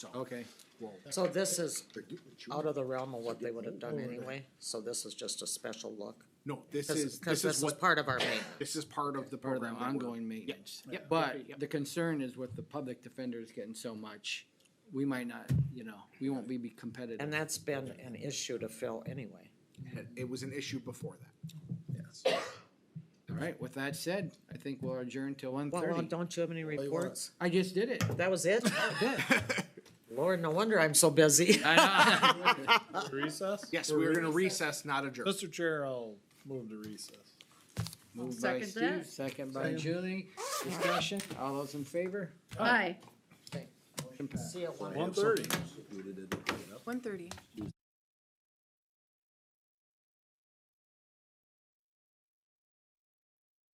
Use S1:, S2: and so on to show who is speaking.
S1: Okay,
S2: So this is out of the realm of what they would have done anyway, so this is just a special look.
S1: no, this
S2: Cause,
S1: is, this
S2: 'cause this
S1: is
S2: is
S1: what,
S2: part of our maintenance.
S1: this is part of the
S3: part of the
S1: program. that we're-
S3: ongoing maintenance.
S1: Yep, yep,
S3: But
S1: agree, yep.
S3: the concern is with the public defenders getting so much, we might not, you know, we won't be be competitive.
S2: And that's been an issue to fill anyway.
S1: It was an issue before that.
S3: All right, with that said, I think we'll adjourn till one
S2: Well, well,
S3: thirty.
S2: don't you have any
S4: you want?
S2: reports?
S3: I just did it.
S2: That was it? Oh,
S3: Good.
S2: Lord, no wonder I'm so busy.
S3: I know.
S4: Recess?
S1: Yes, we are gonna recess, not adjourn.
S4: Mr. Chair, I'll move to recess.
S3: Moved by
S5: second
S3: Steve,
S5: that.
S3: second by Julie. Discussion, all those in favor?
S5: Aye,
S3: Motion passed.
S2: See you at one.
S4: One thirty.
S5: one thirty.